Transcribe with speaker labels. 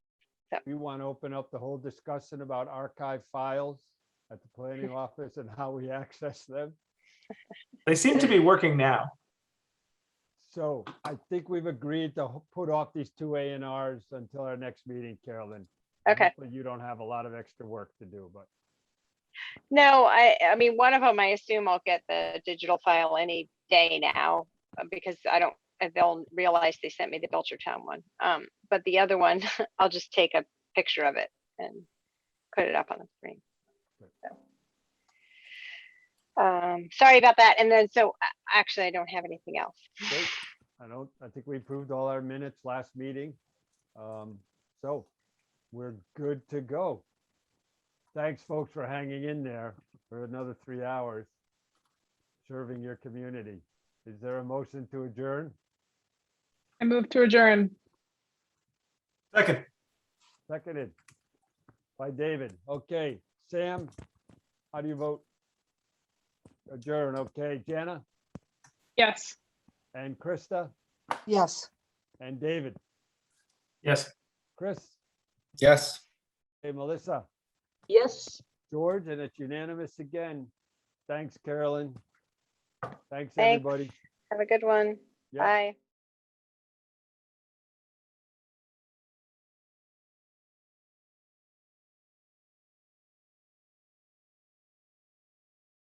Speaker 1: Yep.
Speaker 2: You want to open up the whole discussion about archive files at the planning office and how we access them?
Speaker 3: They seem to be working now.
Speaker 2: So I think we've agreed to ho- put off these two A and Rs until our next meeting, Carolyn. And
Speaker 1: Okay.
Speaker 2: hopefully You don't have a lot of extra work to do, but
Speaker 1: No, I, I mean, one of them, I assume I'll get the digital file any day now, uh, because I don't, uh, they'll realize they sent me the Belchertown one. Um, but the other one, I'll just take a picture of it and put it up on the screen. So. Um, sorry about that. And then, so uh, actually, I don't have anything else.
Speaker 2: great. I don't, I think we approved all our minutes last meeting. Um, So we're good to go. Thanks, folks, for hanging in there for another three hours, serving your community. Is there a motion to adjourn?
Speaker 4: I move to adjourn.
Speaker 3: Second,
Speaker 2: Seconded by David. Okay, Sam, how do you vote? Adjourn, okay. Jana
Speaker 4: Yes.
Speaker 2: and Krista
Speaker 5: Yes.
Speaker 2: and David,
Speaker 3: yes.
Speaker 2: Chris,
Speaker 6: Yes.
Speaker 2: hey, Melissa,
Speaker 5: Yes.
Speaker 2: George, and it's unanimous again. Thanks, Carolyn. Thanks,
Speaker 1: Thanks.
Speaker 2: everybody.
Speaker 1: Have a good one.
Speaker 2: Yeah.
Speaker 1: Bye.